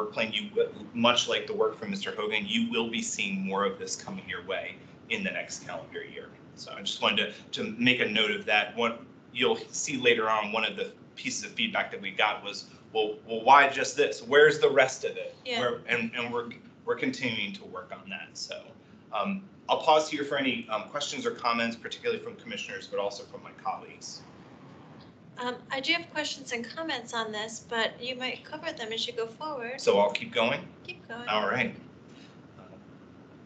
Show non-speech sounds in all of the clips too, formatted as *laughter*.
work plan, you, w- much like the work from Mr. Hogan, you will be seeing more of this coming your way in the next calendar year. So I just wanted to, to make a note of that. What you'll see later on, one of the pieces of feedback that we got was, well, well, why just this? Where's the rest of it? Yeah. We're- And, and we're, we're continuing to work on that. So um, I'll pause here for any um, questions or comments, particularly from commissioners, but also from my colleagues. Um, I do have questions and comments on this, but you might cover them as you go forward. So I'll keep going. Keep going. All right.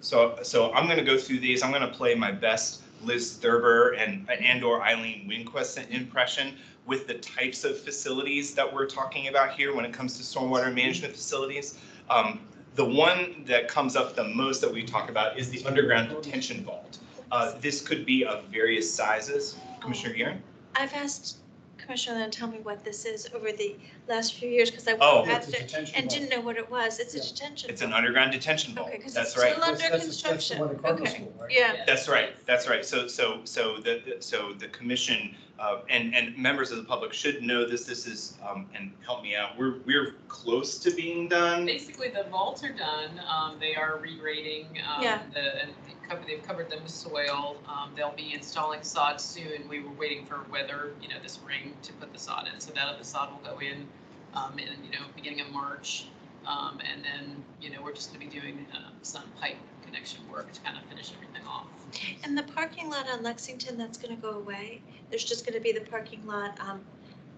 So, so I'm going to go through these. I'm going to play my best Liz Thurber and and/or Eileen Winquist impression with the types of facilities that we're talking about here when it comes to stormwater management facilities. Um, the one that comes up the most that we talk about is the underground detention vault. Uh, this could be of various sizes. Commissioner Gearing? I've asked Commissioner Lynn to tell me what this is over the last few years because I Oh. walked past it and didn't know what it was. It's a Yeah. detention. It's an vault. underground detention vault. Okay, 'cause That's it's right. still under construction. Okay. Yeah, That's right, that's right. So, so, so the, the- so the commission, uh, and, and members of the public should know this, this is, um, and help me out, we're, we're close to being done. Basically, the vaults are done, um, they are regrading, um, Yeah. the, and they cover- they've covered them with soil. Um, they'll be installing sod soon, we were waiting for weather, you know, this spring to put the sod in, so that, the sod will go in, um, in, you know, beginning of March. Um, and then, you know, we're just gonna be doing, uh, some pipe connection work to kind of finish everything off. and the parking lot on Lexington, that's going to go away. There's just going to be the parking lot on,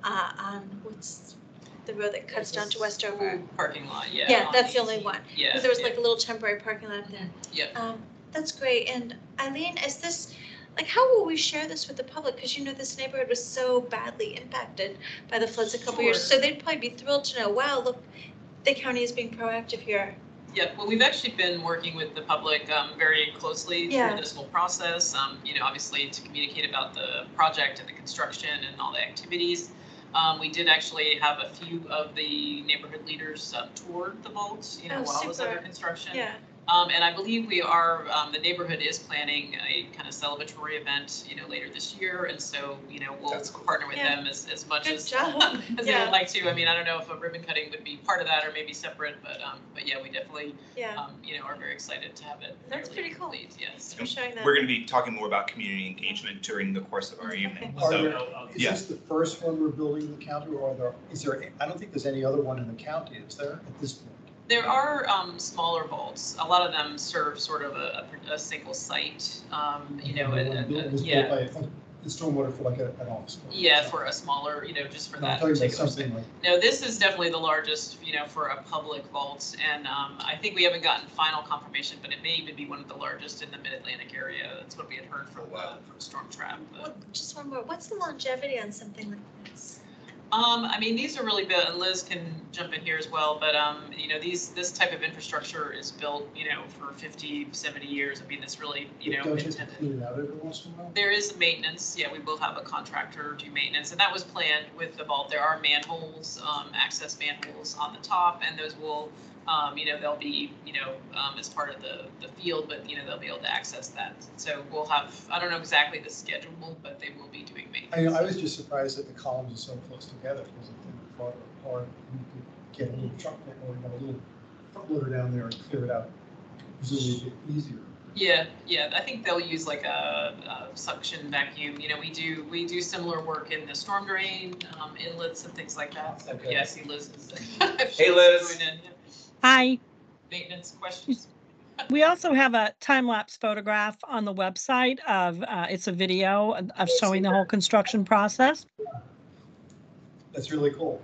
uh, on what's the road that cuts down to Westover. Parking lot, yeah. Yeah, on that's the only 18. one. Yeah. Because there was yeah. like a little temporary parking lot there. Yeah. Um, that's great. And Eileen, is this, like, how will we share this with the public? Because you know, this neighborhood was so badly impacted by the floods a couple years. Sure. So they'd probably be thrilled to know, wow, look, the county is being proactive here. Yep, well, we've actually been working with the public um, very closely Yeah. through this whole process. Um, You know, obviously to communicate about the project and the construction and all the activities. Um, We did actually have a few of the neighborhood leaders um, tour the vaults, you know, Oh, while it was under super. construction. Yeah. Um, And I believe we are, um, the neighborhood is planning a kind of celebratory event, you know, later this year. And so, you know, we'll That's cool. partner with Yeah. them as, as much Good as *laughs* job. as they Yeah. would like to. I mean, I don't know if a ribbon cutting would be part of that or maybe separate, but, um, but yeah, we definitely Yeah. um, you know, are very excited to have it. That's fairly pretty cool. complete, Yes. Thanks for sharing that. We're gonna be talking more about community engagement during the course of our evening. Are So, uh, there, is Yeah. this the first one we're building in the county or are there, is there, I don't think there's any other one in the county, is there, at this point? There are um, smaller vaults. A lot of them serve sort of a, a- a single site, um, you know, The a- one built- a- a- was built yeah. by a fun- The stormwater for like a- an office. building. Yeah, for a smaller, you know, just for I'm that talking about particular something like, No, this is definitely the largest, you know, for a public vault, and um, I think we haven't gotten final confirmation, but it may even be one of the largest in the Mid-Atlantic area. That's what we had heard from, uh, Wow. from uh, Storm Trap. but- What- Just one more. What's the longevity on something like this? Um, I mean, these are really built, and Liz can jump in here as well, but, um, you know, these, this type of infrastructure is built, you know, for 50, 70 years. I mean, it's really, you know, don't you have to intended. clean it out every once in a while? There is maintenance, yeah, we will have a contractor do maintenance, and that was planned with the vault. There are manholes, um, access manholes on the top, and those will, um, you know, they'll be, you know, um, as part of the, the field, but, you know, they'll be able to access that. So we'll have, I don't know exactly the schedule, but they will be doing I mean, maintenance. I was just surprised that the columns are so close together because if they were farther apart, you could get a little truck or you know, a little front loader down there and clear it out. Presumably it'd be easier. Yeah, yeah, I think they'll use like a, a suction vacuum, you know, we do, we do similar work in the storm drain, um, inlets and things like that, so, Okay. yeah, I see Liz *laughs* is. Hey Liz. Hi, Maintenance questions, we also have a time lapse photograph on the website of, uh, it's a video of showing the whole construction process. That's really cool.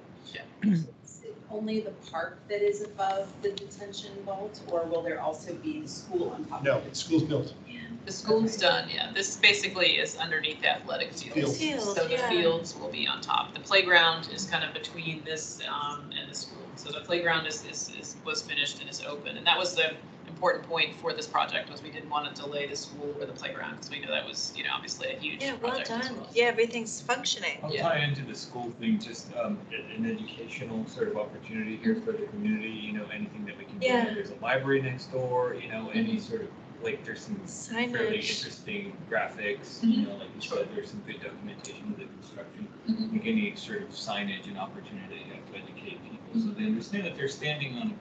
Is it Only the park that is above the detention vault, or will there also be the school on top No, of it? school's built. the school's done, yeah, this basically is underneath the athletic fields. Field. So the Field, yeah. fields will be on top, the playground is kind of between this, um, and the school, so the playground is, is, is, was finished and is open, and that was the important point for this project, was we didn't want to delay the school or the playground, because we know that was, you know, obviously a huge Yeah, well project as done. Yeah, everything's functioning. I'll Yeah. tie into the school thing, just um, a- an educational sort of opportunity here for the community, you know, anything that we can do. Yeah. There's a library next door, you know, any sort of, like, there's some fairly Signage. interesting graphics, you know, like you said, there's some good documentation of the construction. Mhm. Like any sort of signage and opportunity to educate people, so they understand that they're standing on a